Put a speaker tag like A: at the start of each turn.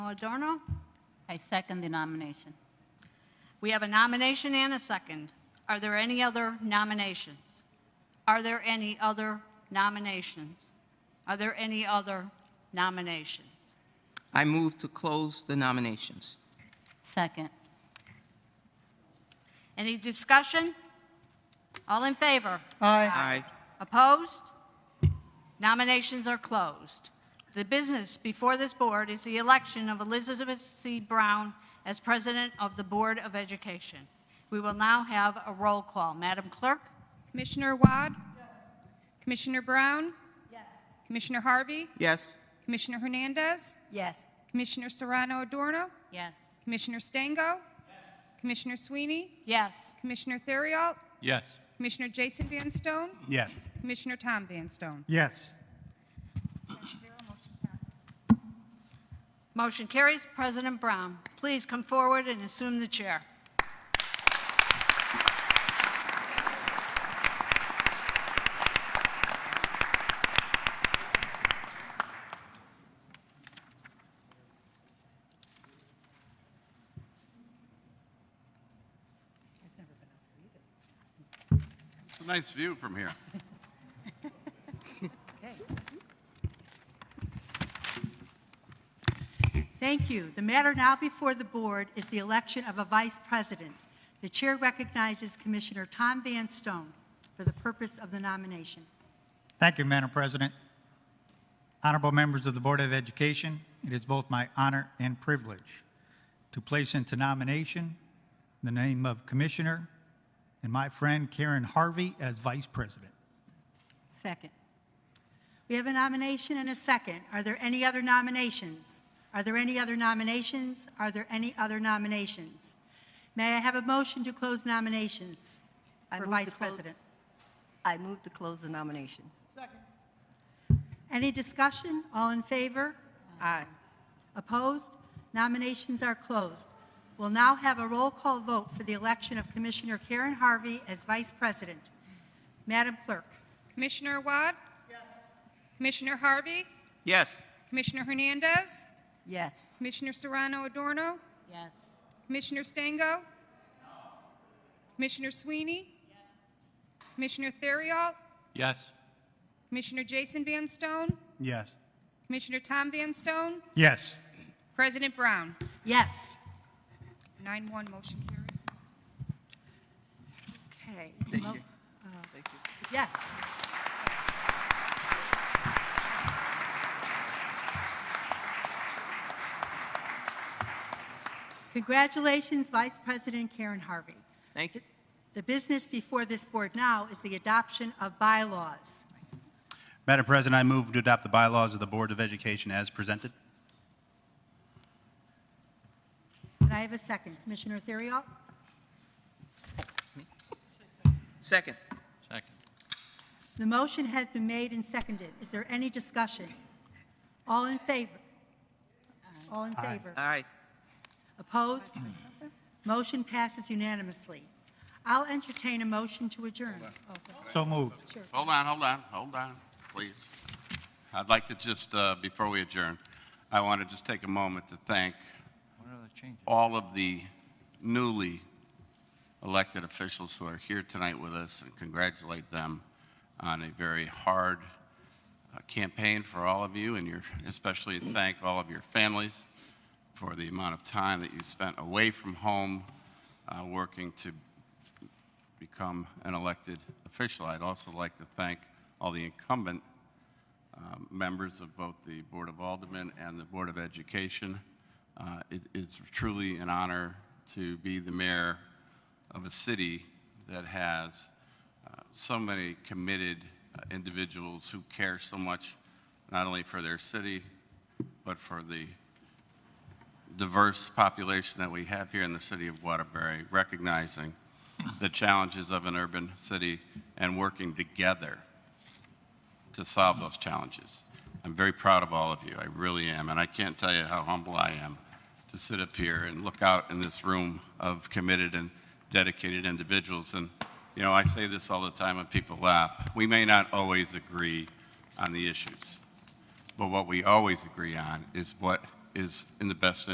A: Adorno.
B: I second the nomination.
A: We have a nomination and a second. Are there any other nominations? Are there any other nominations? Are there any other nominations?
C: I move to close the nominations.
B: Second.
A: Any discussion? All in favor?
C: Aye.
A: Opposed? Nominations are closed. The business before this board is the election of Elizabeth C. Brown as President of the Board of Education. We will now have a roll call. Madam Clerk?
D: Commissioner Wad? Commissioner Brown? Yes. Commissioner Harvey?
C: Yes.
D: Commissioner Hernandez?
E: yes,
D: Commissioner Serrano Adorno?
B: Yes.
D: Commissioner Stango? Commissioner Sweeney?
A: Yes.
D: Commissioner Theriault?
F: Yes.
D: Commissioner Jason Van Stone?
F: Yes.
D: Commissioner Tom Van Stone?
F: Yes.
A: Motion carries. President Brown, please come forward and assume the chair.
G: It's a nice view from here.
E: thank you. The matter now before the board is the election of a vice president. The chair recognizes Commissioner Tom Van Stone for the purpose of the nomination.
F: Thank you, Madam President. Honorable members of the Board of Education, it is both my honor and privilege to place into nomination the name of Commissioner and my friend Karen Harvey as Vice President.
E: Second. We have a nomination and a second. Are there any other nominations? Are there any other nominations? Are there any other nominations? May I have a motion to close nominations
H: I
E: for
H: move to
E: vice
H: close-
E: president?
H: I move to close the nominations.
E: Any discussion? All in favor?
H: Aye.
E: Opposed? Nominations are closed. We'll now have a roll call vote for the election of Commissioner Karen Harvey as Vice President. Madam Clerk?
D: Commissioner Wad? Yes. Commissioner Harvey?
C: Yes.
D: Commissioner Hernandez?
H: Yes,
D: Commissioner Serrano Adorno?
B: Yes.
D: Commissioner Stango? Commissioner Sweeney? Commissioner Theriault?
F: Yes.
D: Commissioner Jason Van Stone?
F: Yes.
D: Commissioner Tom Van Stone?
F: Yes.
D: President Brown?
E: Yes.
D: Nine one, motion carries.
E: Okay. Mo- uh, Yes. Congratulations, Vice President Karen Harvey.
C: Thank you.
E: The business before this board now is the adoption of bylaws.
I: Madam President, I move to adopt the bylaws of the Board of Education as presented.
E: And I have a second. Commissioner Theriault?
C: Second.
F: Second.
E: The motion has been made and seconded. Is there any discussion? All in favor? All in favor?
C: Aye.
E: Opposed? Motion passes unanimously. I'll entertain a motion to adjourn. Oh,
F: So moved.
G: Hold on, hold on, hold on, please. I'd like to just, uh, before we adjourn, I want to just take a moment to thank all of the newly elected officials who are here tonight with us and congratulate them on a very hard uh, campaign for all of you and your, especially thank all of your families for the amount of time that you spent away from home uh, working to become an elected official. I'd also like to thank all the incumbent um, members of both the Board of Aldermen and the Board of Education. Uh, it- It's truly an honor to be the mayor of a city that has uh, so many committed uh, individuals who care so much, not only for their city, but for the diverse population that we have here in the city of Waterbury, recognizing the challenges of an urban city and working together to solve those challenges. I'm very proud of all of you. I really am. And I can't tell you how humble I am to sit up here and look out in this room of committed and dedicated individuals. And, you know, I say this all the time and people laugh. We may not always agree on the issues, but what we always agree on is what is in the best